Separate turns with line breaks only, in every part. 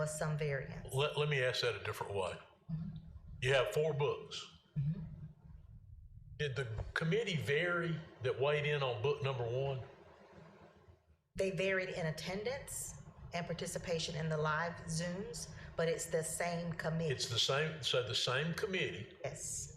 was some variance.
Let, let me ask that a different way. You have four books. Did the committee vary that weighed in on book number one?
They varied in attendance and participation in the live Zooms, but it's the same committee.
It's the same, so the same committee,
Yes,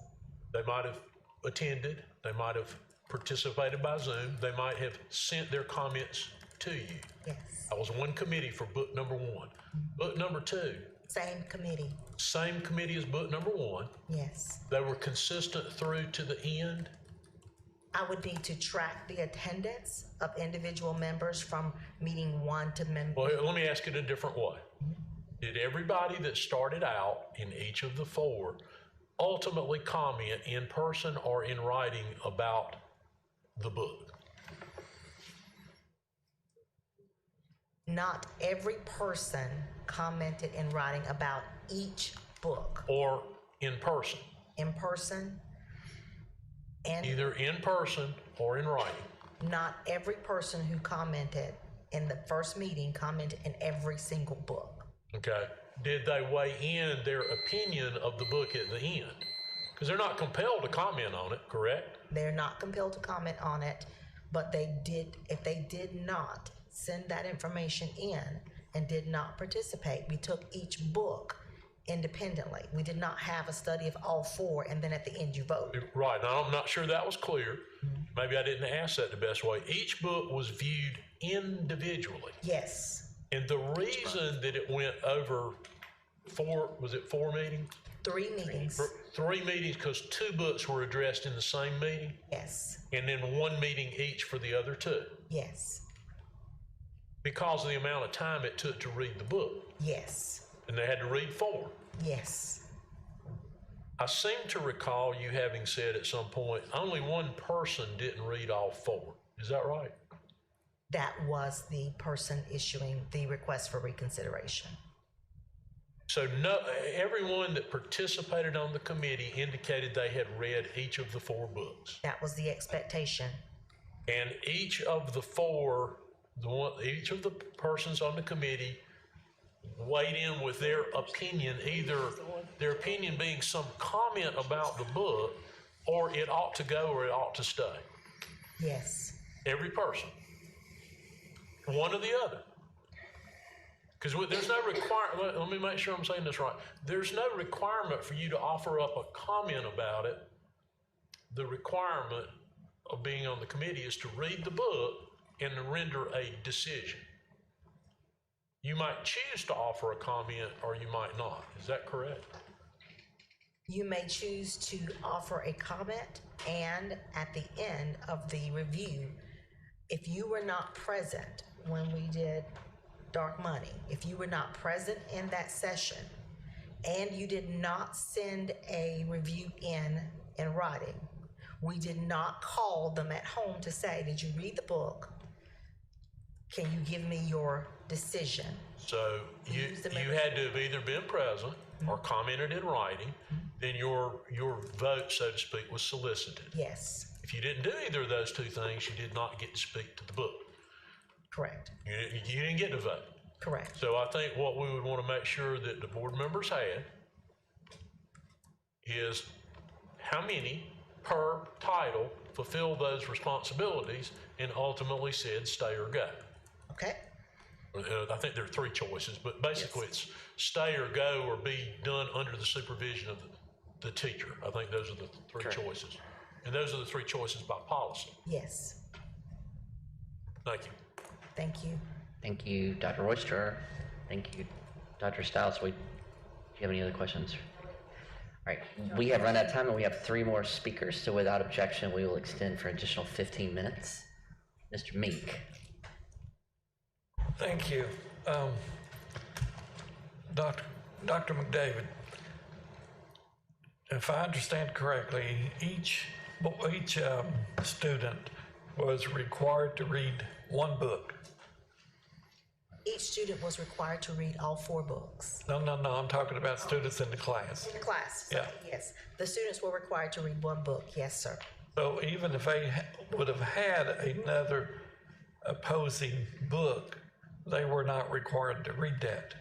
they might have attended, they might have participated by Zoom, they might have sent their comments to you.
yes,
I was one committee for book number one. Book number two,
same committee,
same committee as book number one.
yes.
They were consistent through to the end.
I would need to track the attendance of individual members from meeting one to member.
Well, here, let me ask it a different way. Did everybody that started out in each of the four ultimately comment in person or in writing about the book?
Not every person commented in writing about each book
Or in person,
in person. And
either in person or in writing?
not every person who commented in the first meeting commented in every single book.
Okay. Did they weigh in their opinion of the book at the end? Because they're not compelled to comment on it, correct?
They're not compelled to comment on it, but they did, if they did not send that information in and did not participate, we took each book independently. We did not have a study of all four and then at the end you vote.
Right. And I'm not sure that was clear. Maybe I didn't ask that the best way. Each book was viewed individually.
Yes,
And the reason that it went over four, was it four meetings?
three meetings,
Or Three meetings, because two books were addressed in the same meeting,
yes,
and then one meeting each for the other two,
yes,
because of the amount of time it took to read the book.
yes,
And they had to read four.
yes.
I seem to recall you having said at some point, only one person didn't read all four. Is that right?
That was the person issuing the request for reconsideration.
So no, everyone that participated on the committee indicated they had read each of the four books.
That was the expectation.
And each of the four, the one, each of the persons on the committee weighed in with their opinion, either their opinion being some comment about the book, or it ought to go or it ought to stay.
Yes,
Every person, one or the other. Because there's no requirement, let, let me make sure I'm saying this right. There's no requirement for you to offer up a comment about it. The requirement of being on the committee is to read the book and to render a decision. You might choose to offer a comment or you might not. Is that correct?
you may choose to offer a comment and at the end of the review, if you were not present when we did dark money, if you were not present in that session and you did not send a review in in writing, we did not call them at home to say, did you read the book? Can you give me your decision?
So you,
Use the
you had to have either been present or commented in writing, then your, your vote, so to speak, was solicited.
Yes,
If you didn't do either of those two things, you did not get to speak to the book.
correct,
You, didn't- you didn't get to vote.
correct.
So I think what we would want to make sure that the board members had is how many per title fulfill those responsibilities and ultimately said stay or go.
Okay,
Uh, I think there are three choices, but basically it's stay or go or be done under the supervision of the, the teacher. I think those are the three choices. And those are the three choices by policy.
yes,
Thank you.
thank you.
Thank you, Dr. Royster. Thank you, Dr. Stiles. We, do you have any other questions? All right, we have run out of time and we have three more speakers, so without objection, we will extend for an additional 15 minutes. Mr. Meek.
Thank you. Um, Dr. Dr. McDavid, if I understand correctly, each, each um, student was required to read one book.
Each student was required to read all four books.
No, no, no, I'm talking about students in the class.
The class.
Yeah.
Yes, the students were required to read one book, yes, sir.
So even if they ha- would have had another opposing book, they were not required to read that.